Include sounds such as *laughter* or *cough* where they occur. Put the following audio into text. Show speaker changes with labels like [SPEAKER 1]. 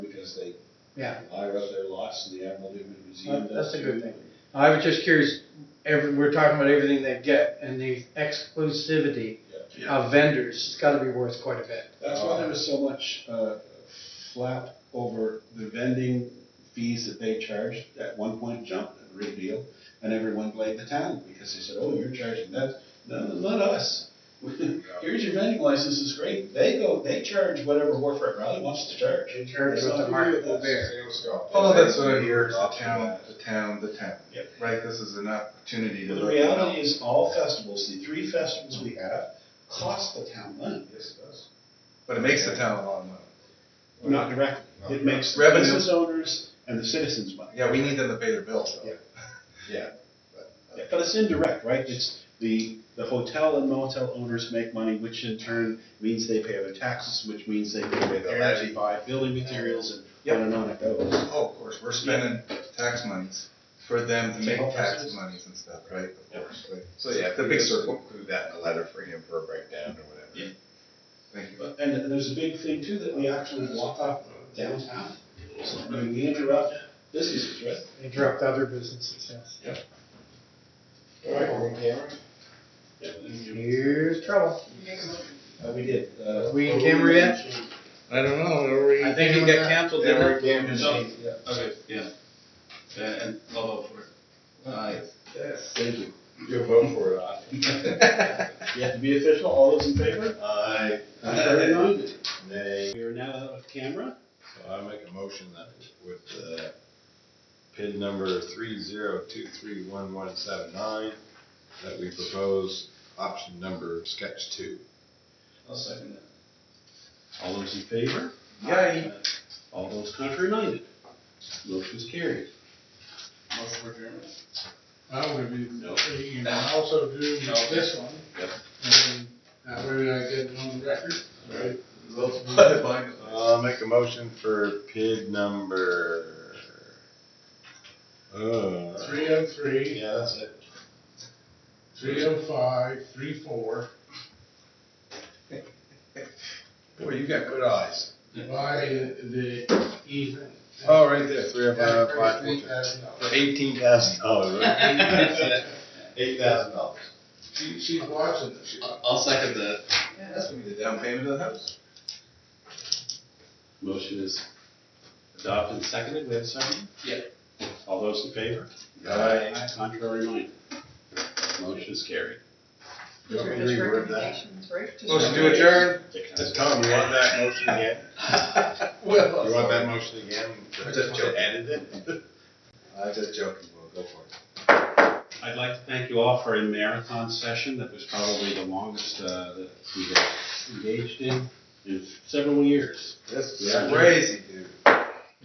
[SPEAKER 1] because they
[SPEAKER 2] Yeah.
[SPEAKER 1] hire out their lots and the Admiral Newman Museum
[SPEAKER 2] That-
[SPEAKER 1] does.
[SPEAKER 2] Uh, that's a good
[SPEAKER 1] too.
[SPEAKER 2] I was just curious, every, we're talking about everything they get and the exclusivity
[SPEAKER 1] Yeah.
[SPEAKER 2] of vendors, it's gotta be worth quite a bit.
[SPEAKER 1] That's why there was so much, uh, flap over the vending fees that they charged, at one point jumped a great deal, and everyone blamed the town, because they said, oh, you're charging that, no, no, not us. *laughs* Here's your vending license, it's great, they go, they charge whatever Warfront Raleigh wants to charge.
[SPEAKER 2] In terms
[SPEAKER 1] It's
[SPEAKER 2] of
[SPEAKER 1] not
[SPEAKER 2] the
[SPEAKER 1] to
[SPEAKER 2] market
[SPEAKER 1] do
[SPEAKER 2] will
[SPEAKER 1] with us.
[SPEAKER 2] bear.
[SPEAKER 3] All Oh, that's what I hear is the town, the town, the town.
[SPEAKER 1] Yep.
[SPEAKER 3] Right, this is an opportunity to.
[SPEAKER 1] The reality is, all festivals, the three festivals we have, cost the town money. Yes, it does.
[SPEAKER 3] But it makes the town a lot of money.
[SPEAKER 1] Not directly, it makes the
[SPEAKER 3] Revenue.
[SPEAKER 1] business owners and the citizens money.
[SPEAKER 3] Yeah, we need them to pay their bills though.
[SPEAKER 1] Yeah. Yeah. But it's indirect, right? It's the, the hotel and motel owners make money, which in turn means they pay their taxes, which means they pay their energy, buy building materials, and on and on it goes.
[SPEAKER 3] Oh, of course, we're spending tax monies for them to
[SPEAKER 1] To
[SPEAKER 3] make
[SPEAKER 1] help
[SPEAKER 3] tax
[SPEAKER 1] us.
[SPEAKER 3] monies and stuff, right? Of
[SPEAKER 1] Yeah.
[SPEAKER 3] course, right.
[SPEAKER 4] So yeah,
[SPEAKER 3] The
[SPEAKER 4] the
[SPEAKER 3] big
[SPEAKER 4] big
[SPEAKER 3] circle.
[SPEAKER 4] include that in a letter for him for a breakdown or whatever.
[SPEAKER 1] Yeah.
[SPEAKER 3] Thank you.
[SPEAKER 1] But- And there's a big thing too, that we actually block off downtown. So, I mean, we interrupt businesses, right?
[SPEAKER 2] Interrupt other businesses, yes.
[SPEAKER 1] All right,
[SPEAKER 5] on camera?
[SPEAKER 1] Yeah, we do.
[SPEAKER 2] Here's trouble.
[SPEAKER 1] Uh, we did, uh,
[SPEAKER 2] We in camera yet?
[SPEAKER 3] I don't know, are we?
[SPEAKER 2] I think it got canceled,
[SPEAKER 5] Yeah,
[SPEAKER 2] didn't
[SPEAKER 5] we're
[SPEAKER 2] it?
[SPEAKER 5] in camera.
[SPEAKER 6] No. Okay, yeah. Yeah, And I'll vote for it.
[SPEAKER 3] Uh,
[SPEAKER 6] Aye.
[SPEAKER 5] Yes.
[SPEAKER 1] thank you.
[SPEAKER 5] You'll vote for it, I.
[SPEAKER 3] *laughs*
[SPEAKER 1] You have to be official, all those in favor?
[SPEAKER 5] Aye.
[SPEAKER 6] Uh,
[SPEAKER 1] Very good.
[SPEAKER 5] Nay.
[SPEAKER 1] We are now out of camera.
[SPEAKER 5] So I make a motion that with, uh, PIN number three zero two three one one seven nine, that we propose option number sketch two.
[SPEAKER 6] I'll second that.
[SPEAKER 1] All those in favor?
[SPEAKER 3] Yay.
[SPEAKER 1] All those contrary minded? Motion is carried.
[SPEAKER 6] Motion for adjournment.
[SPEAKER 7] I would be,
[SPEAKER 1] No.
[SPEAKER 7] you can also do this one.
[SPEAKER 1] Yep.
[SPEAKER 7] And that way I get it on the record. Right.
[SPEAKER 3] *laughs*
[SPEAKER 5] I'll make a motion for PIN number, uh.
[SPEAKER 7] Three oh three,
[SPEAKER 5] Yeah, that's
[SPEAKER 1] *laughs*
[SPEAKER 5] it.
[SPEAKER 7] three oh five, three four,
[SPEAKER 5] Boy, you got good eyes.
[SPEAKER 7] by the easement.
[SPEAKER 5] Oh, right there, three oh
[SPEAKER 7] That
[SPEAKER 5] five, five,
[SPEAKER 7] brings me
[SPEAKER 5] four, two.
[SPEAKER 7] as
[SPEAKER 5] For
[SPEAKER 7] no.
[SPEAKER 5] eighteen thousand dollars, Oh, *laughs* right? Eight thousand dollars.
[SPEAKER 7] She, she's watching this.
[SPEAKER 6] I'll second that.
[SPEAKER 3] Yeah, that's gonna be the down payment of the house.
[SPEAKER 1] Motion is adopted and seconded. We have a second?
[SPEAKER 6] Yeah.
[SPEAKER 1] All those in favor?
[SPEAKER 5] Aye.
[SPEAKER 1] Contrary minded? Motion is carried.
[SPEAKER 5] Just
[SPEAKER 8] Just
[SPEAKER 5] reword that.
[SPEAKER 8] recommendations, right? Just
[SPEAKER 3] Motion to adjourn.
[SPEAKER 5] Tom, you want that motion again? *laughs*
[SPEAKER 3] Well.
[SPEAKER 5] You want that motion again?
[SPEAKER 3] I just joking.
[SPEAKER 5] Edit it? *laughs* I'm just joking, well, go for it.
[SPEAKER 1] I'd like to thank you all for a marathon session that was probably the longest uh, that we have engaged in in several years.
[SPEAKER 3] This
[SPEAKER 1] Yeah.
[SPEAKER 3] is crazy, dude.